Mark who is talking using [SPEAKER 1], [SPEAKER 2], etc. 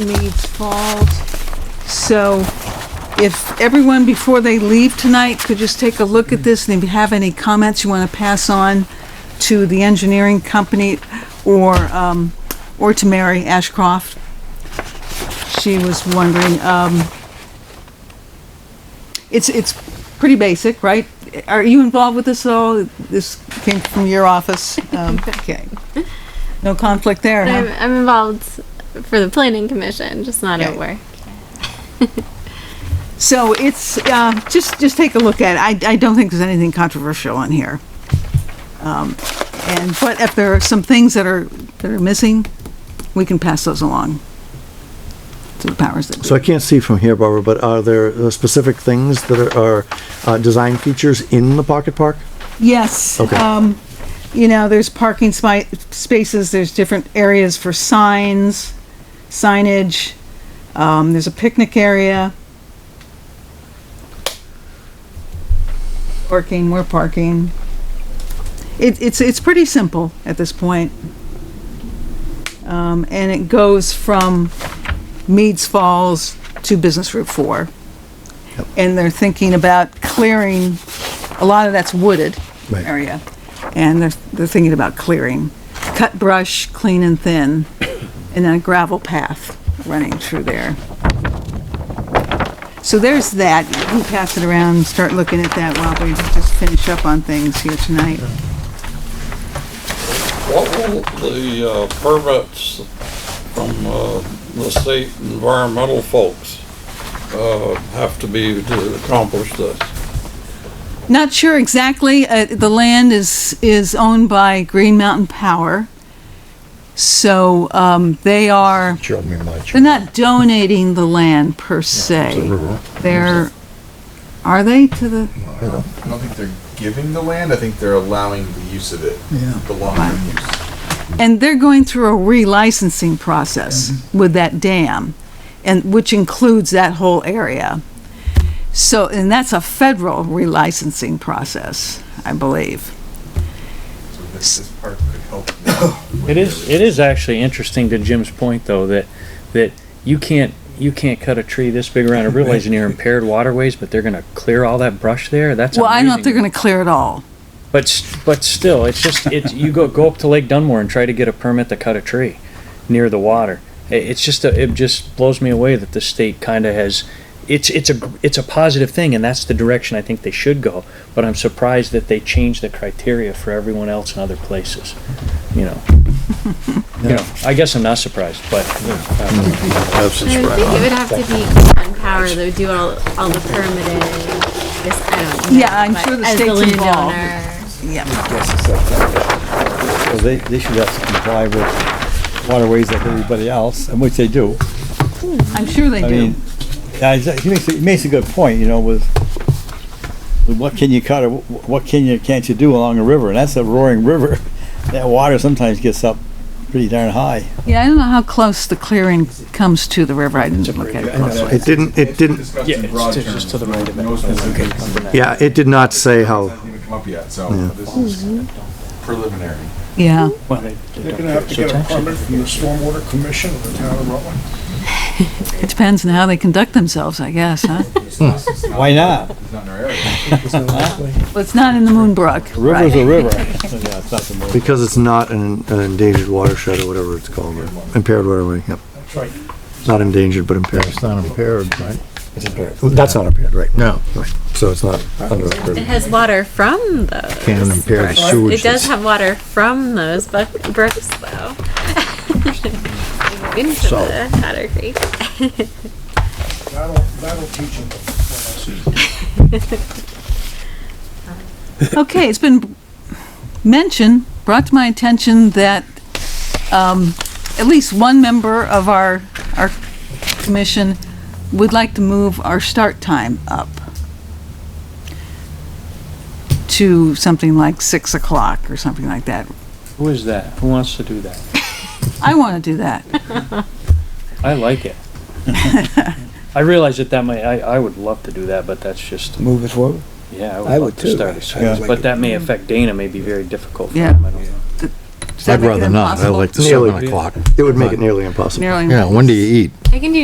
[SPEAKER 1] needs fault. So if everyone, before they leave tonight, could just take a look at this, and if you have any comments you want to pass on to the engineering company or, um, or to Mary Ashcroft. She was wondering, um, it's, it's pretty basic, right? Are you involved with this at all? This came from your office? Um, Okay. No conflict there, huh?
[SPEAKER 2] I'm, I'm involved for the planning commission, just not
[SPEAKER 1] Okay.
[SPEAKER 2] at work.
[SPEAKER 1] So it's, uh, just, just take a look at it. I, I don't think there's anything controversial on here. Um, And, but if there are some things that are, that are missing, we can pass those along to the powers that
[SPEAKER 3] So I can't see from here, Barbara, but are there uh, specific things that are, are, uh, design features in the pocket park?
[SPEAKER 1] Yes,
[SPEAKER 3] Okay.
[SPEAKER 1] um, you know, there's parking spi- spaces, there's different areas for signs, signage, um, there's a picnic area. Parking, more parking. It, it's, it's pretty simple at this point. Um, and it goes from Meads Falls to Business Route Four. And they're thinking about clearing a lot of that's wooded
[SPEAKER 3] Right.
[SPEAKER 1] area, and they're, they're thinking about clearing, cut brush, clean and thin, and then a gravel path running through there. So there's that, you can pass it around and start looking at that while we just finish up on things here tonight.
[SPEAKER 4] What will the uh, permits from uh, the state environmental folks uh, have to be to accomplish this?
[SPEAKER 1] Not sure exactly. Uh, the land is is owned by Green Mountain Power, so um, they are. They're not donating the land per se. They're are they to the?
[SPEAKER 5] I don't think they're giving the land. I think they're allowing the use of it. Yeah. The long-term use.
[SPEAKER 1] And they're going through a relicensing process with that dam, and which includes that whole area. So, and that's a federal relicensing process, I believe.
[SPEAKER 5] So this, this park could help. with
[SPEAKER 6] It is, it is actually interesting to Jim's point though, that, that you can't, you can't cut a tree this big around. I realize you're impaired waterways, but they're gonna clear all that brush there. That's
[SPEAKER 1] Well, I don't think they're
[SPEAKER 6] amazing.
[SPEAKER 1] going to clear it all.
[SPEAKER 6] But, s- but still, it's just, it's, you go, go up to Lake Dunmore and try to get a permit to cut a tree near the water. I- It's just, a- it just blows me away that the state kind of has, it's, it's a, it's a positive thing and that's the direction I think they should go. But I'm surprised that they changed the criteria for everyone else in other places, you know? You know, I guess I'm not surprised, but, um,
[SPEAKER 2] I would think it would have to be on power that would do all, all the permitting. This, I don't know.
[SPEAKER 1] Yeah, I'm
[SPEAKER 2] but
[SPEAKER 1] sure the
[SPEAKER 2] as
[SPEAKER 1] state's involved.
[SPEAKER 2] landowner-
[SPEAKER 1] Yeah.
[SPEAKER 7] So they, they should have to comply with waterways like everybody else, and which they do.
[SPEAKER 1] I'm sure they
[SPEAKER 7] I
[SPEAKER 1] do.
[SPEAKER 7] mean, yeah, he's- he makes, a- he makes a good point, you know, with, with what can you cut or wh- what can you, can't you do along a river? And that's a roaring river. That water sometimes gets up pretty darn high.
[SPEAKER 1] Yeah, I don't know how close the clearing comes to the river. I didn't look at it closely.
[SPEAKER 3] It didn't, it didn't, Oh.
[SPEAKER 5] Discussed
[SPEAKER 6] yeah,
[SPEAKER 5] in
[SPEAKER 6] it's
[SPEAKER 5] broad
[SPEAKER 6] it's
[SPEAKER 5] terms.
[SPEAKER 6] just to the right of it.
[SPEAKER 5] No specifics.
[SPEAKER 3] yeah, it did not say how,
[SPEAKER 5] Hasn't even come up yet, so this is preliminary.
[SPEAKER 1] Yeah.
[SPEAKER 6] Well, they- they
[SPEAKER 8] They're
[SPEAKER 6] don't
[SPEAKER 8] gonna have to
[SPEAKER 6] care.
[SPEAKER 8] get
[SPEAKER 6] So
[SPEAKER 8] a
[SPEAKER 6] it's actually-
[SPEAKER 8] permit from the Stormwater Commission of the town of Rutland.
[SPEAKER 1] It depends on how they conduct themselves, I guess, huh?
[SPEAKER 7] Why not?
[SPEAKER 5] It's not in our area.
[SPEAKER 1] Well, it's not in the Moonbrook.
[SPEAKER 7] A river's
[SPEAKER 1] right.
[SPEAKER 7] a river. Yeah, it's not the most-
[SPEAKER 3] because it's not an an endangered watershed or whatever it's called, or impaired waterway, yep.
[SPEAKER 8] right.
[SPEAKER 3] Not endangered, but impaired. It's not impaired, right? That's not impaired, right? No. So it's not under
[SPEAKER 2] It
[SPEAKER 3] impaired.
[SPEAKER 2] has water from those.
[SPEAKER 3] Can impair the
[SPEAKER 2] brooks.
[SPEAKER 3] sewage
[SPEAKER 2] It does
[SPEAKER 3] that's-
[SPEAKER 2] have water from those bu- brooks though. Into the Hatter Creek.
[SPEAKER 8] That'll, that'll teach them
[SPEAKER 1] Okay, it's been mentioned, brought to my attention that um, at least one member of our, our commission would like to move our start time up to something like 6 o'clock or something like that.
[SPEAKER 6] Who is that? Who wants to do that?
[SPEAKER 1] I want to do that.
[SPEAKER 6] I like it. I realize that that might, I, I would love to do that, but that's just,
[SPEAKER 9] move it forward.
[SPEAKER 6] yeah, I
[SPEAKER 9] I
[SPEAKER 6] would love
[SPEAKER 9] would
[SPEAKER 6] to
[SPEAKER 9] too.
[SPEAKER 6] start at
[SPEAKER 9] I
[SPEAKER 6] six.
[SPEAKER 9] would
[SPEAKER 6] But
[SPEAKER 9] like
[SPEAKER 6] that may affect Dana, may be very difficult for
[SPEAKER 1] Yeah.
[SPEAKER 6] him, I don't know.
[SPEAKER 10] Does that
[SPEAKER 1] I'd
[SPEAKER 10] make it
[SPEAKER 1] rather not. I
[SPEAKER 10] impossible?
[SPEAKER 1] like the
[SPEAKER 3] Nearly.
[SPEAKER 1] seven o'clock.
[SPEAKER 3] It would make it nearly impossible.
[SPEAKER 10] Nearly
[SPEAKER 1] Yeah, when do you eat?
[SPEAKER 2] I can do